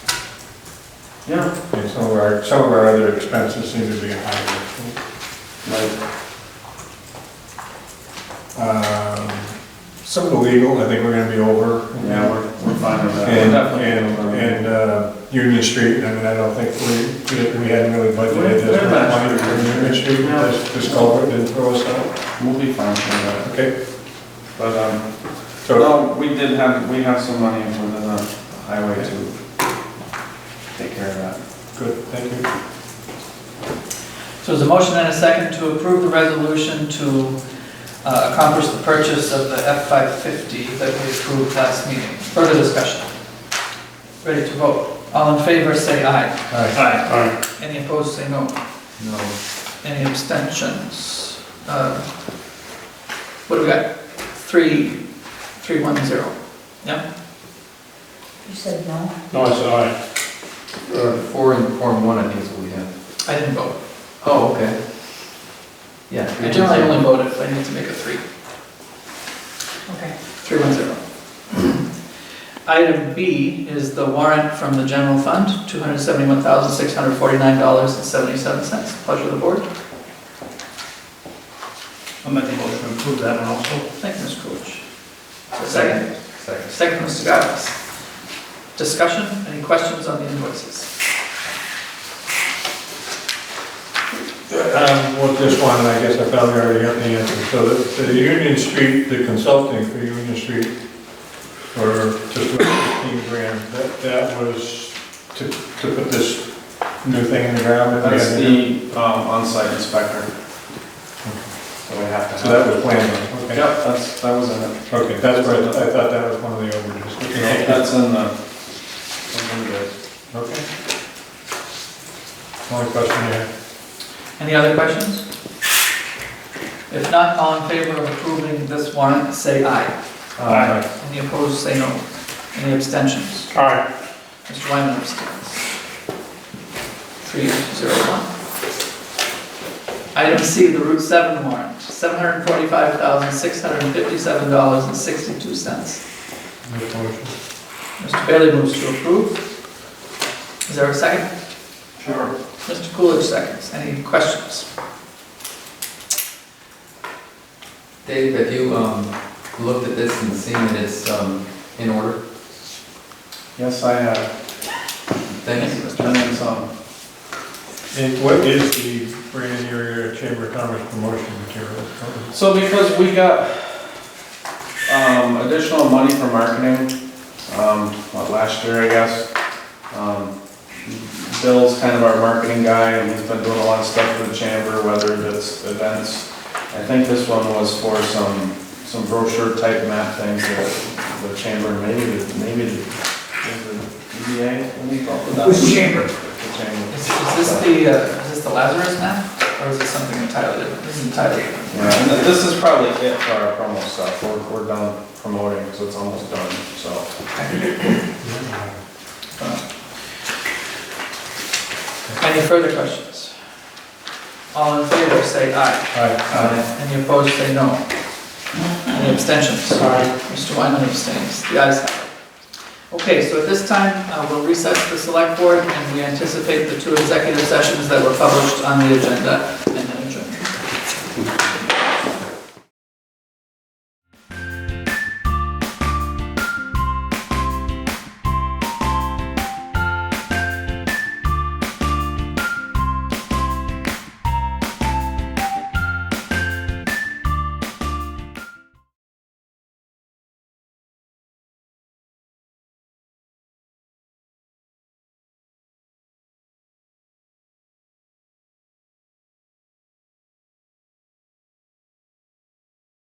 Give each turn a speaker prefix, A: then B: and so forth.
A: Yeah.
B: And some of our, some of our other expenses seem to be higher.
A: Right.
B: Um, Some of the legal, I think we're gonna be over.
A: Yeah, we're, we're fine with that.
B: And,
A: Definitely.
B: and, and, uh, Union Street, I mean, I don't think we, we- we hadn't really budgeted
A: We're- we're
B: this
A: not-
B: money for Union Street,
A: No.
B: this, this culvert didn't throw us out.
A: We'll be fine with that.
B: Okay,
A: But, um,
B: so,
A: no, we did have, we have some money within the highway to take care of that.
B: good, thank you.
C: So is a motion and a second to approve the resolution to uh, accomplish the purchase of the F-550 that we approved last meeting. Further discussion? Ready to vote? All in favor, say aye.
B: All right,
A: Aye. Aye.
C: Any opposed, say no.
A: No.
C: Any abstentions? Uh, What do we got? Three, three, one, zero.
D: You said no?
E: No, I said aye.
F: Uh, Four and, four and one, I think is what we have.
C: I didn't vote.
F: Oh, okay. Yeah. three
C: I
F: and
C: generally
F: zero.
C: only vote if I need to make a three.
D: Okay.
C: 310. Item B is the warrant from the general fund, $271,649.77. Pleasure of the board.
E: I'm making a motion to approve that one also.
C: Thank you, Ms. Coolidge. Second.
F: Second.
C: Second, Mr. Gardis. Discussion, any questions on the invoices?
B: Um, well, this one, I guess I probably already got the answer. So the, the Union Street, the consulting for Union Street for just about fifteen grand, that, that was to, to put this new thing in the ground. that we
A: That's
B: had to do?
A: the, um, on-site inspector. So we have to have.
B: So that was planned,
A: Yep,
B: okay.
A: that's, that was in it.
B: Okay, that's where, I I thought that was one of the overages. Okay, thank
A: That's in the, that's in the-
B: you. Okay. Only question I have.
C: Any other questions? If not, all in favor of approving this warrant, say aye.
E: Aye.
C: Any opposed, say no. Any abstentions?
E: Aye.
C: Mr. Wyman abstains. Three, zero, one. Item C, the Route 7 warrant, $745,657.62.
B: Make a motion.
C: Mr. Bailey moves to approve. Is there a second?
A: Sure.
C: Mr. Coolidge seconds. Any questions?
F: Dave, have you, um, looked at this and seen that it's, um, in order?
A: Yes, I have.
F: Thanks.
A: And then some.
B: And what is the brand new Chamber of Commerce promotion material?
A: So because we got, um, additional money for marketing, um, what, last year, I guess. um, Bill's kind of our marketing guy, and he's been doing a lot of stuff for the chamber, whether it's events. I think this one was for some, some brochure type map things that the chamber, maybe, the- maybe the, is the E EDA, what do you call
B: Uh,
A: it?
C: Who's chamber?
A: The chamber.
C: Is is this the, uh, is this the Lazarus map? Or is this something entirely different? This is entirely different.
A: Yeah, and th- this is probably it for our promo stuff, we're, we're done promoting, so it's almost done, so.
C: Any further questions? All in favor, say aye. Any opposed, say no. Any abstentions? Mr. Wyman abstains. The ayes have it. Okay, so at this time, uh, we'll recess the select board, and we anticipate the two executive sessions that were published on the agenda, and